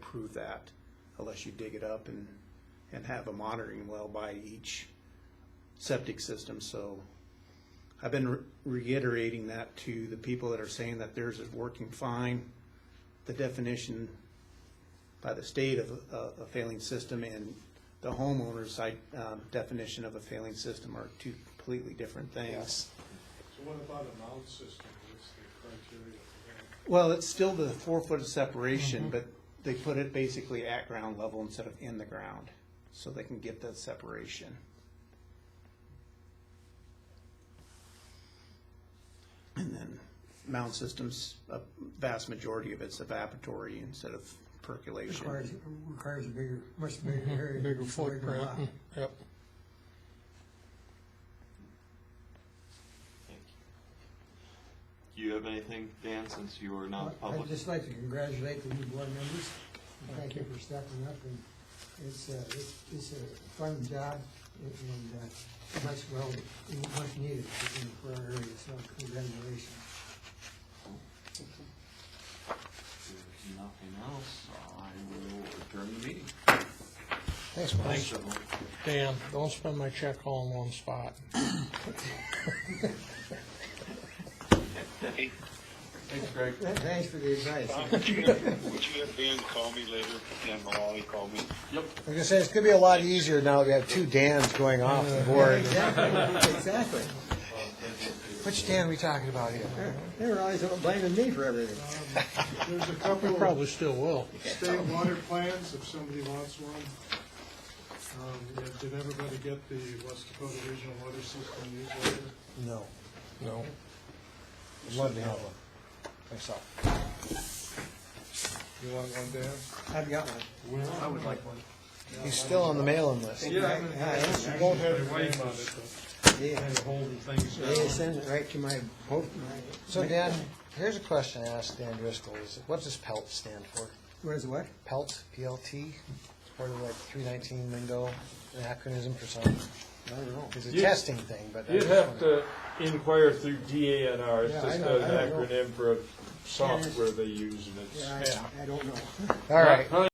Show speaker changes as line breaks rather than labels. prove that unless you dig it up and, and have a monitoring well by each septic system, so. I've been re- reiterating that to the people that are saying that theirs is working fine. The definition by the state of a, a failing system and the homeowner's side, um, definition of a failing system are two completely different things.
So what about a mound system, what's the criteria for that?
Well, it's still the four foot of separation, but they put it basically at ground level instead of in the ground, so they can get that separation. And then mound systems, a vast majority of it's evaporatory instead of percolation.
Requires, requires a bigger, much bigger area.
Bigger
lot.
footprint, yep.
Thank you. Do you have anything, Dan, since you are not
I'd
public?
just like to congratulate the new board members. and Thank you for stepping up and it's, uh, it's, it's a fun job and, and, uh, much well, much needed for our area, so congratulations.
If there's Nothing else, I will adjourn the meeting.
Thanks, Mike.
Thanks, everyone.
Dan, don't spend my check all in one spot.
Thanks, Greg.
Thanks for the advice.
Would you have Dan call me later, Dan Maloney call me?
I was gonna say, it's gonna be a lot easier now that we have two Dans going off the board.
Exactly, exactly.
Which Dan are we talking about here?
They were always blaming me for everything.
Um, There's a
We
couple of
probably still will.
state water plans, if somebody wants one. Um, yeah, Did everybody get the West Dakota Regional Water System newsletter?
No,
No.
I'd love to have one, myself.
You want one, Dan?
I've got one.
I would like one.
He's still on the mailing list.
Yeah.
Right, I-
I won't have your name on it, but
They
I'm holding things
they
down.
send it right to my, boat, my.
So Dan, here's a question I asked Dan Driscoll, is, what does PELT stand for?
What is what?
PELT, P-L-T, it's part of like three nineteen lingo, an acronym for something.
I don't know.
It's a
You-
testing thing, but. I
You'd
just
have
wondered.
to inquire through DANR,
Yeah, I
it's just
know,
an
I don't know.
acronym for a software they use and it's.
Yeah, I, I don't know.
All right,
Probably